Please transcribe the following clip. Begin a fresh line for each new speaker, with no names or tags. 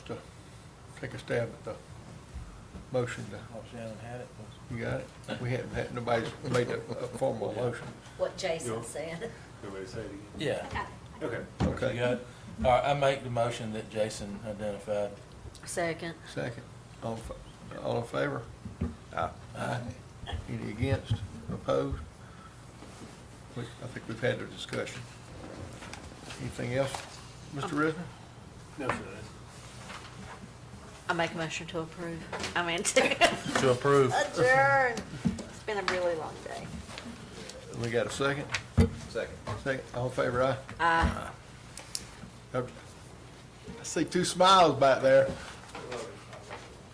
take a stab at the motion to,
Oh, Shannon had it.
you got it? We haven't, had nobody's made a a formal motion.
what
Yeah.
Jason said.
Everybody say it again.
Yeah.
Okay.
You
Okay,
got it? All right, I make the motion that Jason identified.
Second.
second. All, in fa- all in favor? Aye. Any against, opposed? We- I think we've had the discussion. Anything else, Mr. Risner?
No, sir.
I make a motion to approve. I mean, to
To approve.
adjourn. It's been a really long day.
We got a second? Second. Second, all in favor, aye?
Uh,
I see two smiles back there.